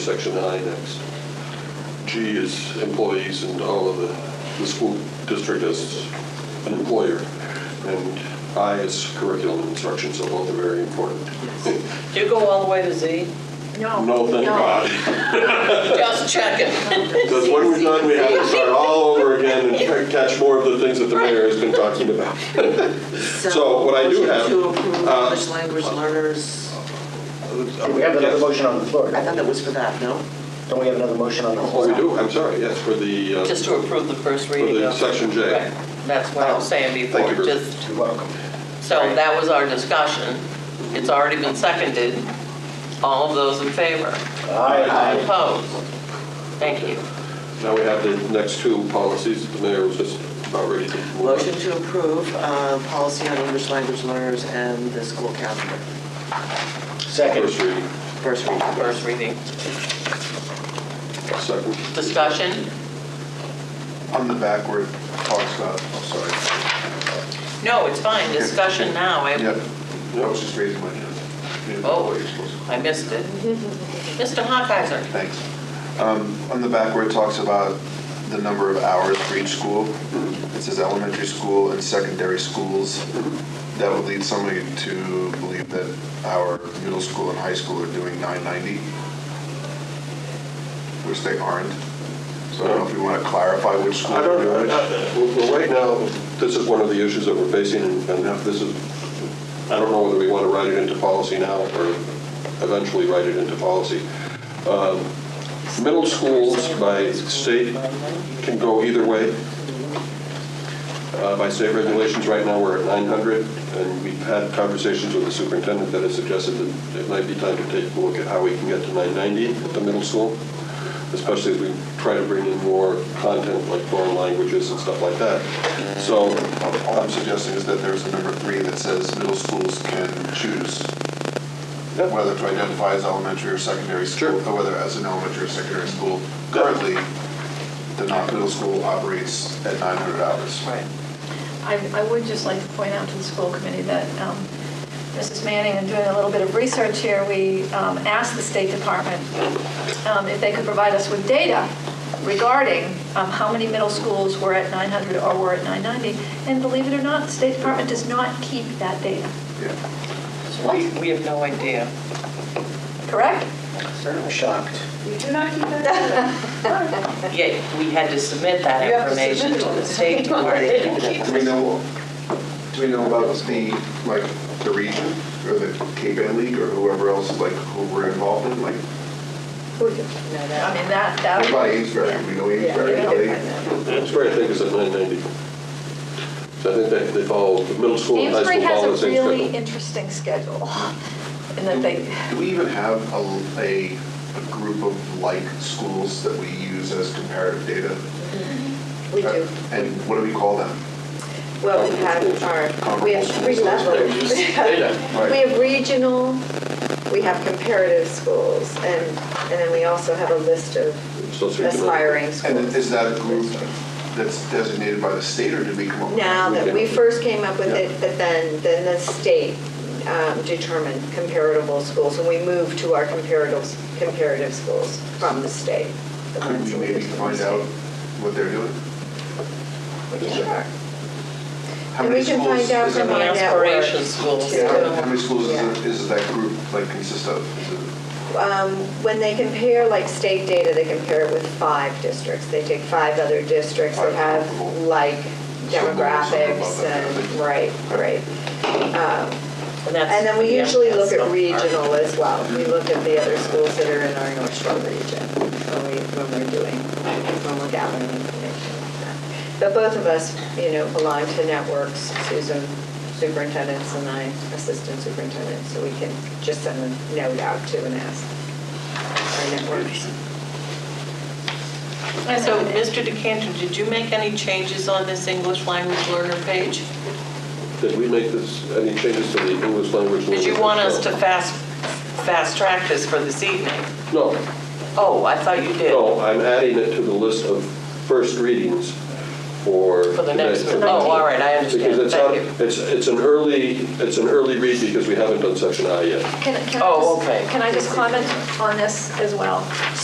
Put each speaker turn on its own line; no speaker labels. Section I next. G is employees and all of the, the school district as an employer. And I is curriculum and instruction, so both are very important.
Do you go all the way to Z?
No, thank God.
Just checking.
Because when we're done, we have to start all over again and try to catch more of the things that the mayor has been talking about. So what I do have,
Motion to approve
uh,
English language learners,
Do we have another motion on the floor?
I thought that was for that, no?
Don't we have another motion on the
Oh,
floor?
we do, I'm sorry, yes, for the, uh,
Just to approve the first
for
reading.
the
of-
section J. Oh,
Right. That's what I was saying
Thank
before,
you, Bruce.
just,
You're welcome.
so that was our discussion. It's already been seconded. All of those in favor?
Aye.
Opposed? Thank you.
Now we have the next two policies that the mayor was just about ready to move on.
Motion to approve uh, policy on English language learners and the school calendar,
Second.
First reading,
first reading.
First reading.
second.
Discussion?
On the back where it talks about, oh,
No, it's fine, discussion now.
sorry.
I,
Yeah, I was just raising my hand.
Oh.
You're supposed to-
I missed it. Mr. Hawkeizer?
Thanks. Um, On the back where it talks about the number of hours for each school, it says elementary school and secondary schools. That would lead somebody to believe that our middle school and high school are doing 990, which they aren't. So I don't know if you want to clarify which school.
I don't know, Well, well, right now, this is one of the issues that we're facing, and this is, I don't know whether we want to write it into policy now or eventually write it into policy. Um, Middle schools by state can go either way. Uh, By state regulations, right now, we're at 900, and we've had conversations with the superintendent that has suggested that it might be time to take a look at how we can get to 990 at the middle school, especially as we try to bring in more content like foreign languages and stuff like that. So
All I'm suggesting is that there's a number three that says middle schools can choose
Yep.
whether to identify as elementary or secondary school, or whether as an elementary or secondary school. Currently, the Knox Middle School operates at 900 hours.
Right.
I, I would just like to point out to the school committee that um, Mrs. Manning, in doing a little bit of research here, we um, asked the State Department um, if they could provide us with data regarding um, how many middle schools were at 900 or were at 990. And believe it or not, the State Department does not keep that data,
Yeah.
We we have no idea.
correct?
I'm shocked.
Yet we had to submit that information to the state department.
Do we know, do we know about the, like, the region, or the Cape Ann League, or whoever else, like, who we're involved in, like,
I mean, that, that.
about Amesbury, we know Amesbury, how they-
that's where I think is at 990. So I think they- they follow, the middle school and high
Amesbury
school
has
follow the
a
same
really
schedule.
interesting schedule, and that they,
Do we even have a, a, a group of like schools that we use as comparative data?
We do.
And what do we call them?
Well, we have our, we have three levels. We have- we have regional, we have comparative schools, and, and then we also have a list of
Socioeconomic.
aspiring
And
schools.
is that a group that's designated by the state or did we come up with?
Now, that we first came up with
Yeah.
it, but then, then the state um, determined comparable schools, and we moved to our comparative, comparative schools from the state. the
Could
ones
we
that
maybe
get from the
find
state.
out what they're doing?
Sure.
How
And we
many
can
schools
find out
is that-
from our
The
network.
aspiration schools,
too.
Yeah,
out.
How many schools
Yeah.
is, it- is that group like consist of? Is it-
um, when they compare like state data, they compare it with five districts. They take five other districts that
Five
have
comparable.
like
Something- something about
demographics
that,
and,
yeah.
right, right. Um,
And that's-
And then we usually look
Yeah.
at regional as well. We look at the other schools that are in our North Shore region when we, when we're doing, when we're gathering information like that. But both of us, you know, belong to networks, Susan superintendents and I assistant superintendent, so we can just send a note out to and ask our networks.
So, Mr. Decanter, did you make any changes on this English language learner page?
Did we make this, any changes to the English language?
Did you
learners?
want us to
No.
fast, fast track this for this evening?
No,
Oh, I thought you did.
no, I'm adding it to the list of first readings for
for the next,
today.
oh, all right, I
Because
understand,
it's, not-
thank you.
it's, it's an early, it's an early read because we haven't done section I yet.
Can, can I
Oh,
just-
okay.
Can I just comment on this as well?